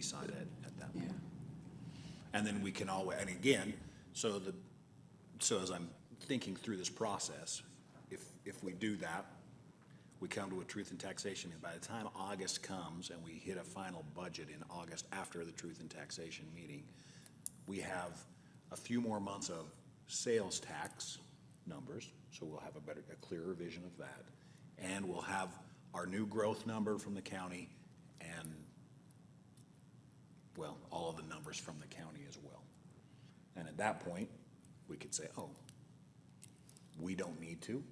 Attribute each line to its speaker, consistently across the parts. Speaker 1: decide it at that point. And then we can always, and again, so the, so as I'm thinking through this process, if, if we do that, we come to a truth in taxation, and by the time August comes and we hit a final budget in August after the truth in taxation meeting, we have a few more months of sales tax numbers, so we'll have a better, a clearer vision of that. And we'll have our new growth number from the county and, well, all of the numbers from the county as well. And at that point, we could say, oh, we don't need to,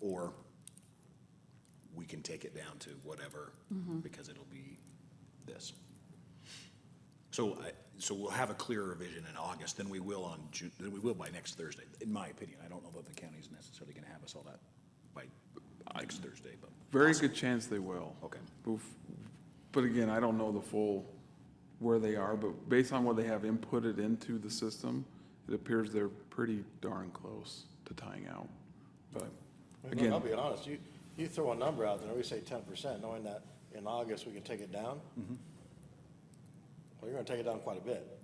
Speaker 1: or we can take it down to whatever, because it'll be this. So I, so we'll have a clearer vision in August than we will on Ju, than we will by next Thursday, in my opinion. I don't know that the county's necessarily gonna have us all that by next Thursday, but.
Speaker 2: Very good chance they will.
Speaker 1: Okay.
Speaker 2: But- But again, I don't know the full, where they are, but based on what they have inputted into the system, it appears they're pretty darn close to tying out. But
Speaker 3: I mean, look,
Speaker 2: again,
Speaker 3: I'll be honest, you, you throw a number out there, we say ten percent, knowing that in August we can take it down. Well, you're gonna take it down quite a bit,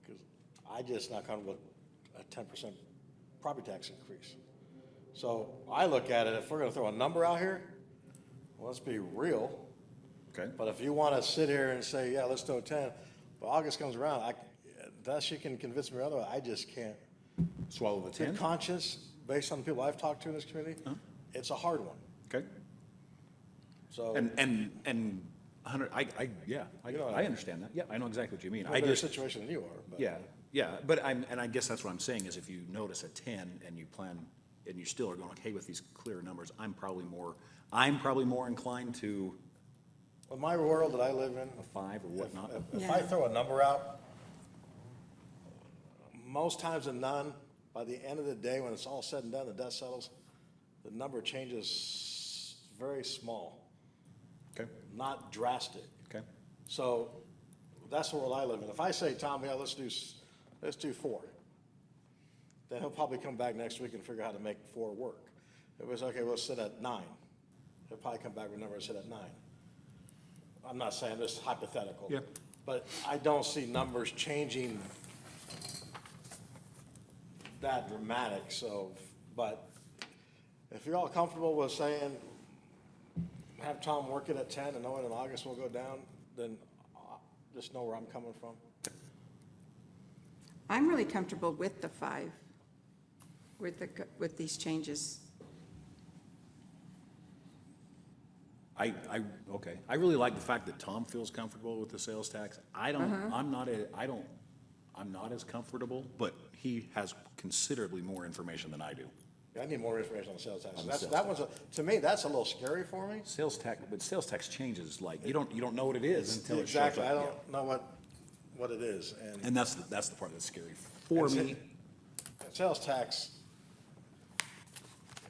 Speaker 3: because I just not comfortable with a ten percent property tax increase. So I look at it, if we're gonna throw a number out here, well, let's be real,
Speaker 1: Okay.
Speaker 3: but if you wanna sit here and say, yeah, let's throw ten, but August comes around, I, unless you can convince me otherwise, I just can't
Speaker 1: Swallow the
Speaker 3: good
Speaker 1: ten,
Speaker 3: conscience, based on the people I've talked to in this community, it's a hard one.
Speaker 1: okay?
Speaker 3: So,
Speaker 1: And, and, and a hundred, I, I, yeah, I,
Speaker 3: You know,
Speaker 1: I understand that. Yeah, I know exactly what you mean.
Speaker 3: in a
Speaker 1: I
Speaker 3: better
Speaker 1: just,
Speaker 3: situation than you are, but.
Speaker 1: Yeah, yeah, but I'm, and I guess that's what I'm saying is if you notice a ten and you plan, and you still are going, okay, with these clear numbers, I'm probably more, I'm probably more inclined to
Speaker 3: In my world that I live in,
Speaker 1: a five or whatnot.
Speaker 3: if- if I
Speaker 4: Yeah.
Speaker 3: throw a number out, most times than none, by the end of the day, when it's all said and done, the dust settles, the number changes very small,
Speaker 1: Okay,
Speaker 3: not drastic.
Speaker 1: okay,
Speaker 3: So that's the world I live in. If I say, Tom, yeah, let's do, s- let's do four, then he'll probably come back next week and figure out how to make four work. If it's, okay, we'll sit at nine, he'll probably come back with a number and sit at nine. I'm not saying this is hypothetical.
Speaker 1: Yep.
Speaker 3: But I don't see numbers changing that dramatic, so, but if you're all comfortable with saying, have Tom work it at ten and knowing in August we'll go down, then uh, just know where I'm coming from.
Speaker 4: I'm really comfortable with the five, with the, with these changes.
Speaker 1: I, I, okay, I really like the fact that Tom feels comfortable with the sales tax. I don't, I'm not, a- I don't, I'm not as comfortable, but he has considerably more information than I do.
Speaker 3: I need more information on the sales tax.
Speaker 1: On the
Speaker 3: That's,
Speaker 1: sales
Speaker 3: that one's, a- to me, that's a little scary for me.
Speaker 1: Sales tax, but sales tax changes, like, you don't, you don't know what it is until it shows up.
Speaker 3: Exactly, I
Speaker 1: yeah.
Speaker 3: don't know what, what it is, and
Speaker 1: And that's, the- that's the part that's scary for
Speaker 3: That's it.
Speaker 1: me.
Speaker 3: sales tax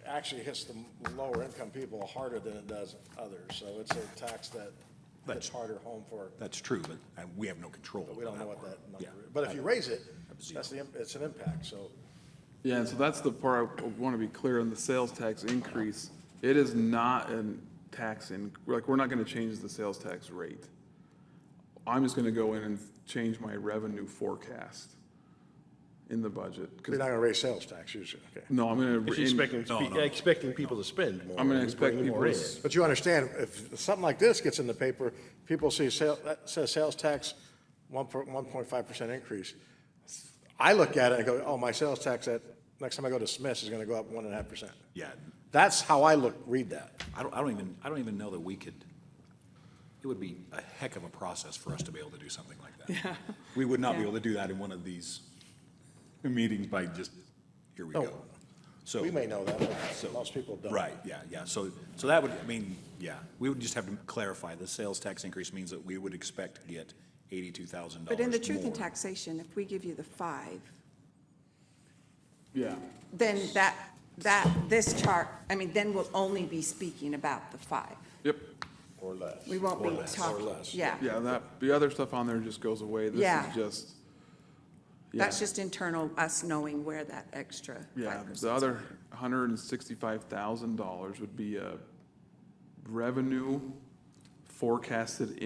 Speaker 3: actually hits the lower income people harder than it does others, so it's a tax that
Speaker 1: That's-
Speaker 3: hits harder home for,
Speaker 1: That's true, but uh, we have no control.
Speaker 3: but we don't know what that
Speaker 1: Yeah.
Speaker 3: number is. But if you raise it,
Speaker 1: Zero.
Speaker 3: that's the, im- it's an impact, so.
Speaker 2: yeah, and so that's the part I want to be clear on the sales tax increase. It is not a tax in, like, we're not going to change the sales tax rate. I'm just going to go in and change my revenue forecast in the budget. 'cause-
Speaker 3: You're not gonna raise sales tax usually, okay?
Speaker 2: No, I'm going to.
Speaker 5: If you're expecting,
Speaker 1: No, no.
Speaker 5: expecting people to spend more.
Speaker 2: I'm gonna
Speaker 5: and
Speaker 2: expect
Speaker 5: bring more
Speaker 2: people to
Speaker 5: in.
Speaker 2: s-
Speaker 3: But you understand, if something like this gets in the paper, people see sale, that says sales tax, one, one point five percent increase. I look at it and go, oh, my sales tax at, next time I go to Smith's is gonna go up one and a half percent.
Speaker 1: Yeah,
Speaker 3: That's how I look, read that.
Speaker 1: I don't, I don't even, I don't even know that we could, it would be a heck of a process for us to be able to do something like that. We would not be
Speaker 4: Yeah.
Speaker 1: able to do that in one of these meetings by just, here we
Speaker 3: No.
Speaker 1: go. So,
Speaker 3: We may know that,
Speaker 1: So-
Speaker 3: but most people don't.
Speaker 1: right, yeah, yeah, so, so that would, I mean, yeah, we would just have to clarify, the sales tax increase means that we would expect to get eighty-two thousand dollars
Speaker 4: But in the truth in
Speaker 1: more.
Speaker 4: taxation, if we give you the five,
Speaker 2: Yeah,
Speaker 4: then that, that, this chart, I mean, then we'll only be speaking about the five.
Speaker 2: yep,
Speaker 3: Or less.
Speaker 4: We won't be
Speaker 1: Or less, or
Speaker 4: talking,
Speaker 3: less,
Speaker 4: yeah.
Speaker 2: yeah, that, the other stuff on there just goes away, this
Speaker 4: Yeah.
Speaker 2: is just. yeah,
Speaker 4: That's just internal, us knowing where that extra
Speaker 2: Yeah,
Speaker 4: five
Speaker 2: the
Speaker 4: percent.
Speaker 2: other hundred and sixty-five thousand dollars would be a revenue forecasted